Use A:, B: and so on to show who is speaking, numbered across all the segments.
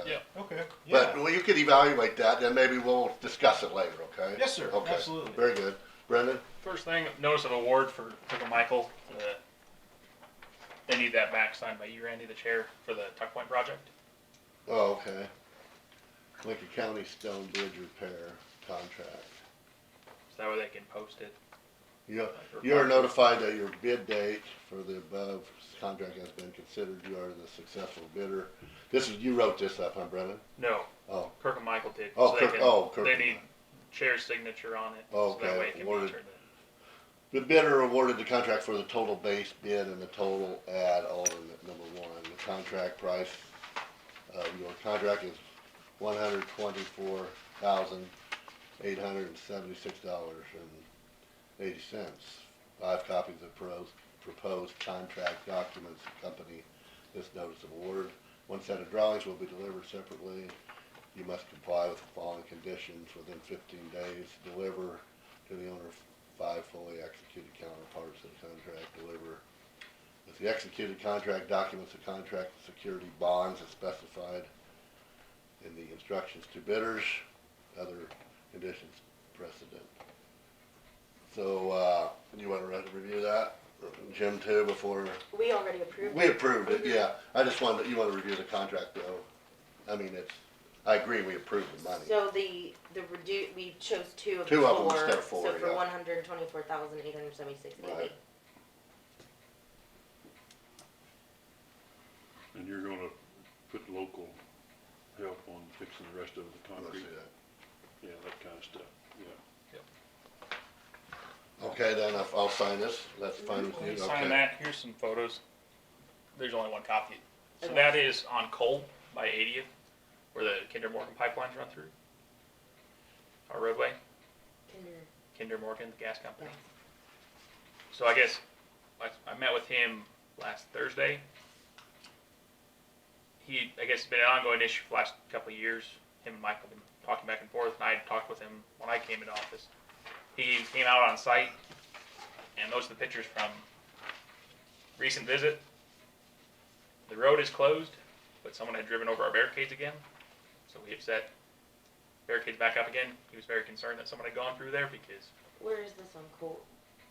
A: Okay, yeah.
B: But well, you can evaluate that, and maybe we'll discuss it later, okay?
A: Yes, sir.
B: Okay.
A: Absolutely.
B: Very good. Brendan?
C: First thing, notice of award for, for the Michael. The, they need that back signed by you, Randy, the chair, for the Tuck Point project.
B: Oh, okay. Lincoln County Stone Bridge Repair Contract.
C: So that way they can post it.
B: You,
C: like, or-
B: you are notified that your bid date for the above contract has been considered. You are the successful bidder. This is, you wrote this up, huh, Brendan?
C: No,
B: Oh,
C: Kirk and Michael did.
B: Oh,
C: so
B: Kirk-
C: they can,
B: oh, Kirk
C: They
B: and
C: need
B: Michael.
C: chair's signature on it. So
B: Okay,
C: that way it can
B: awarded.
C: be turned in.
B: The bidder awarded the contract for the total base bid and the total add alternate number one. The contract price of your contract is one hundred twenty-four thousand, eight hundred and seventy-six dollars and eighty cents. Five copies of pros, proposed contract documents accompany this notice of award. One set of drawings will be delivered separately. You must comply with the following conditions within fifteen days. Deliver to the owner five fully executed counterparts of the contract deliver. If the executed contract documents the contract security bonds as specified in the instructions to bidders, other conditions precedent. So, uh, you wanna re- review that, Jim too, before,
D: We already approved
B: we
D: it.
B: approved it, yeah, I just wanted, you wanna review the contract though, I mean, it's, I agree, we approved the money.
D: So the, the redu, we chose two of the four.
B: Two of them instead of four,
D: So for
B: yeah.
D: one hundred and twenty-four thousand eight hundred and seventy-six eighty.
B: Right.
E: And you're gonna put local help on fixing the rest of the
B: Let's
E: concrete?
B: do that.
E: Yeah, that kinda stuff, yeah.
B: Okay, then I'll, I'll sign this, that's fine with
C: When you
B: you,
C: sign
B: okay,
C: that, here's some photos. There's only one copy. So
D: Okay.
C: that is on Cole by 80th, where the Kinder Morgan pipelines run through. Our roadway, Kinder Morgan, the gas company. So I guess I, I met with him last Thursday. He, I guess, it's been an ongoing issue for the last couple of years. Him and Michael have been talking back and forth, and I had talked with him when I came into office. He came out on site, and those are the pictures from recent visit. The road is closed, but someone had driven over our barricades again, so we have set barricades back up again. He was very concerned that someone had gone through there because
D: Where is this on Colt?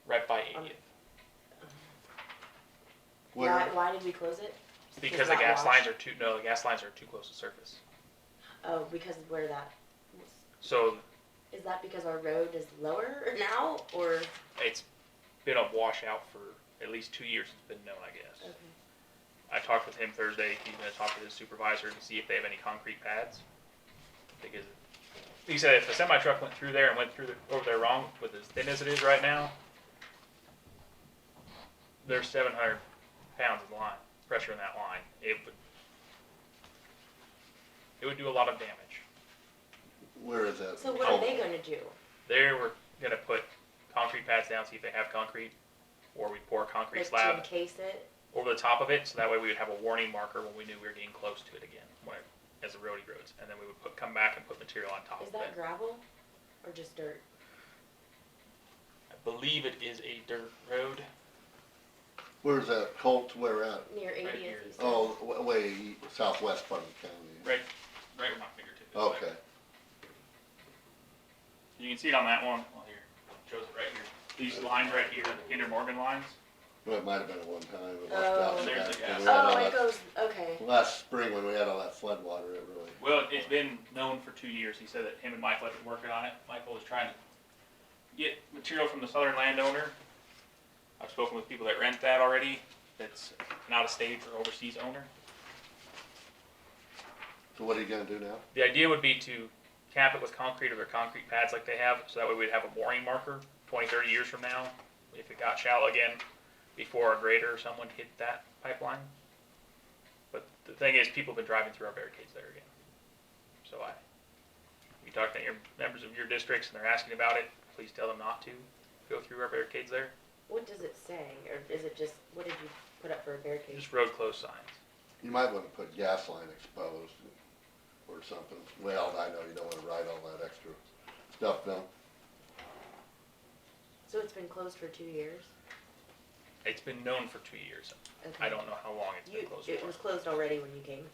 C: right by
D: Um,
C: 80th.
B: Where-
D: Why, why did we close it?
C: Because the
D: not
C: gas lines
D: washed?
C: are too, no, the gas lines are too close to surface.
D: Oh, because of where that,
C: So
D: is that because our road is lower now, or?
C: it's been a washout for at least two years it's been known, I guess.
D: okay.
C: I talked with him Thursday, he's gonna talk with his supervisor to see if they have any concrete pads. Because, he said if a semi truck went through there and went through, the- over there wrong with as thin as it is right now, there's seven hundred pounds of line, pressure in that line, it would, it would do a lot of damage.
B: where is that?
D: So what are
B: Oh.
D: they gonna do?
C: They were gonna put concrete pads down, see if they have concrete, or we pour a concrete
D: Like to
C: slab
D: encase it?
C: over the top of it, so that way we would have a warning marker when we knew we were getting close to it again, when it, as the road erodes, and then we would put, come back and put material on top
D: Is
C: of
D: that
C: it.
D: gravel or just dirt?
C: I believe it is a dirt road.
B: Where's that Colt, where at?
D: Near eightieth,
C: here.
D: you said?
B: Oh, w- way southwest part of the county.
C: Right, right where my fingertip is.
B: Oh, Okay,
C: You can see it on that one, well, here, shows it right here. These lines right here, the Kinder Morgan lines,
B: well, it might have been at one time. it left
D: Oh.
B: out
C: There's the
B: back when
C: gas.
B: we had all
D: Oh, it
B: that-
D: goes, okay,
B: Last spring when we had all that flood water, it really,
C: Well, it's been known for two years. He said that him and Michael had been working on it. Michael was trying to get material from the southern landowner. I've spoken with people that rent that already, that's an out-of-state or overseas owner.
B: so what are you gonna do now?
C: The idea would be to cap it with concrete or their concrete pads like they have, so that way we'd have a mooring marker 20, 30 years from now, if it got shallow again, before a grader or someone hit that pipeline. But the thing is, people have been driving through our barricades there again. So I, you talk to your members of your districts and they're asking about it, please tell them not to go through our barricades there.
D: what does it say, or is it just, what did you put up for a barricade?
C: Just road closed signs.
B: You might wanna put gas line exposed or something. Well, I know you don't wanna write all that extra stuff down.
D: So it's been closed for two years?
C: It's been known for two years.
D: Okay.
C: I don't know how long it's
D: You,
C: been closed
D: it
C: for.
D: was closed already when you came.